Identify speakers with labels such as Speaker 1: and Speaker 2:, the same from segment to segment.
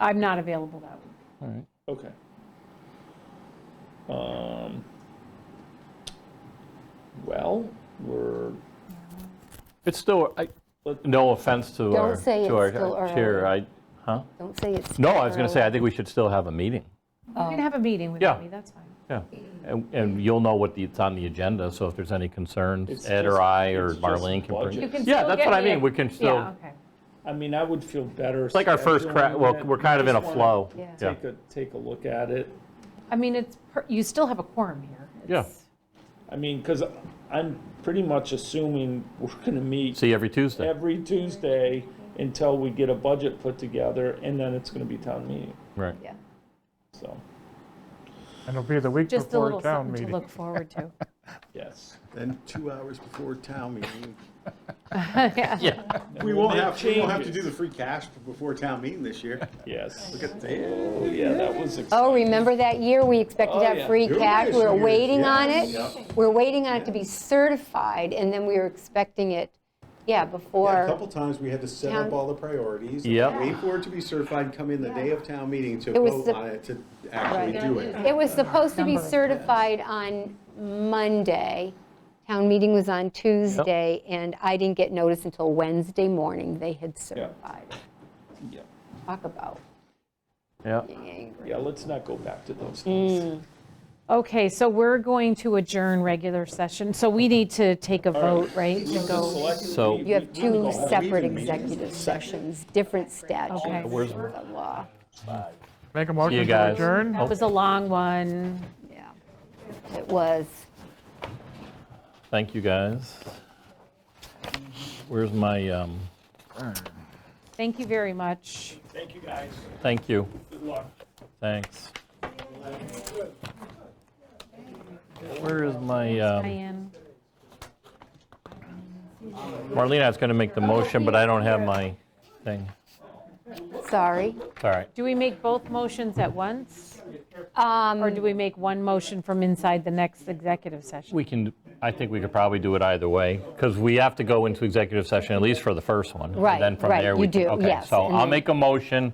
Speaker 1: I'm not available that week.
Speaker 2: All right.
Speaker 3: Okay. Um, well, we're,
Speaker 2: It's still, I,
Speaker 3: Let-
Speaker 2: no offense to
Speaker 4: Don't
Speaker 2: our,
Speaker 4: say
Speaker 2: to
Speaker 4: it's
Speaker 2: our
Speaker 4: still
Speaker 2: chair,
Speaker 4: early.
Speaker 2: I, huh?
Speaker 4: Don't say it's.
Speaker 2: No, I was going to say, I think we should still have a meeting.
Speaker 1: You can have a meeting
Speaker 2: Oh. Yeah.
Speaker 1: without me, that's fine.
Speaker 2: Yeah. And, and you'll know what the, it's on the agenda, so if there's any
Speaker 3: It's
Speaker 2: concerns, Ed or
Speaker 3: just-
Speaker 2: I or
Speaker 3: it's just
Speaker 2: Marlene can bring.
Speaker 3: budget.
Speaker 1: You can
Speaker 2: Yeah,
Speaker 1: still
Speaker 2: that's
Speaker 1: get
Speaker 2: what I
Speaker 1: me a-
Speaker 2: mean, we can
Speaker 1: Yeah,
Speaker 2: still,
Speaker 1: okay.
Speaker 3: I mean, I would feel better.
Speaker 2: it's like our first crack,
Speaker 3: scheduling
Speaker 2: well,
Speaker 3: it.
Speaker 2: we're kind of in a
Speaker 3: Just wanna
Speaker 2: flow.
Speaker 4: Yeah.
Speaker 2: Yeah.
Speaker 3: Take a, take a look at it.
Speaker 1: I mean, it's, per- you still have a quorum here.
Speaker 2: Yeah.
Speaker 1: It's-
Speaker 3: I mean, because I'm pretty much assuming we're going to meet
Speaker 2: See every Tuesday,
Speaker 3: every Tuesday until we get a budget put together, and then it's going to be town meeting,
Speaker 2: right.
Speaker 4: Yeah.
Speaker 3: so,
Speaker 5: And it'll be the week
Speaker 1: Just a
Speaker 5: before
Speaker 1: little
Speaker 5: town
Speaker 1: something
Speaker 5: meeting.
Speaker 1: to look forward to.
Speaker 3: yes.
Speaker 6: Then two hours before town meeting.
Speaker 2: Yeah.
Speaker 6: We won't have, we won't have to do
Speaker 3: changes.
Speaker 6: the free cash before town meeting this year.
Speaker 3: Yes.
Speaker 6: Look at that.
Speaker 3: Oh, yeah, that was
Speaker 4: Oh,
Speaker 3: exciting.
Speaker 4: remember that year we expected
Speaker 3: Oh,
Speaker 4: to have
Speaker 3: yeah.
Speaker 4: free
Speaker 6: Two
Speaker 4: cash?
Speaker 6: years,
Speaker 4: We were
Speaker 6: two years,
Speaker 4: waiting
Speaker 6: yeah,
Speaker 4: on it.
Speaker 6: yeah.
Speaker 4: We were waiting on it to be certified and then we were expecting it, yeah,
Speaker 6: Yeah, A
Speaker 4: before.
Speaker 6: couple times, we had to set up
Speaker 4: Town-
Speaker 6: all the priorities.
Speaker 2: Yep.
Speaker 6: Wait for it to be certified, come in the day of town meeting to
Speaker 4: It was
Speaker 6: vote
Speaker 4: the-
Speaker 6: on it, to actually
Speaker 4: Right.
Speaker 6: do it.
Speaker 4: It was supposed to be
Speaker 1: Number of
Speaker 4: certified on Monday. Town meeting was on Tuesday and I didn't get notice until Wednesday morning they had certified. it.
Speaker 3: Yeah.
Speaker 4: Talk about
Speaker 2: Yeah.
Speaker 4: being angry.
Speaker 3: Yeah, let's not go back to those
Speaker 4: Mm.
Speaker 3: things.
Speaker 1: Okay, so we're going to adjourn regular session, so we need to take a vote, right? To go,
Speaker 3: Select-
Speaker 2: So-
Speaker 3: we-
Speaker 4: You have
Speaker 3: we- we go
Speaker 4: two
Speaker 3: home.
Speaker 4: separate executive sessions, different statutes
Speaker 1: Okay.
Speaker 4: of the law.
Speaker 5: Make a motion to
Speaker 2: guys.
Speaker 5: adjourn?
Speaker 1: that was a long one.
Speaker 4: Yeah, It was.
Speaker 2: Thank you, guys. Where's my, um,
Speaker 1: Thank you very much.
Speaker 3: Thank you, guys.
Speaker 2: thank you,
Speaker 3: Good luck.
Speaker 2: thanks. Where is my, um,
Speaker 1: Diane,
Speaker 2: Marlene, I was going to make the motion, but I don't have my thing.
Speaker 4: Sorry.
Speaker 2: It's all right.
Speaker 1: do we make both motions at once?
Speaker 4: Um,
Speaker 1: Or do we make one motion from inside the next executive session?
Speaker 2: We can, I think we could probably do it either way, because we have to go into executive session, at least for the first one. and
Speaker 4: Right,
Speaker 2: then from
Speaker 4: right,
Speaker 2: there we
Speaker 4: you
Speaker 2: can-
Speaker 4: do,
Speaker 2: Okay,
Speaker 4: yes,
Speaker 2: so
Speaker 4: and
Speaker 2: I'll
Speaker 4: then-
Speaker 2: make a motion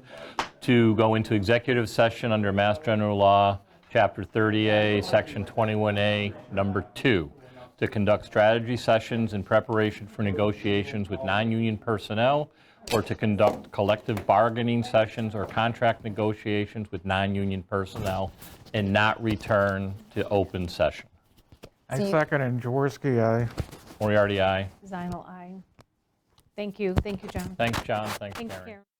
Speaker 2: to go into executive session under Mass General Law, Chapter 30A, Section 21A, Number 2, to conduct strategy sessions in preparation for negotiations with non-union personnel, or to conduct collective bargaining sessions or contract negotiations with non-union personnel, and not return to open session.
Speaker 5: I
Speaker 4: So you-
Speaker 5: second and Jaworski, aye.
Speaker 2: Moriarty, aye.
Speaker 1: Zinal, aye. Thank you, thank you, John.
Speaker 2: Thanks, John. Thanks,
Speaker 1: Thanks,
Speaker 2: Karen.
Speaker 1: Karen.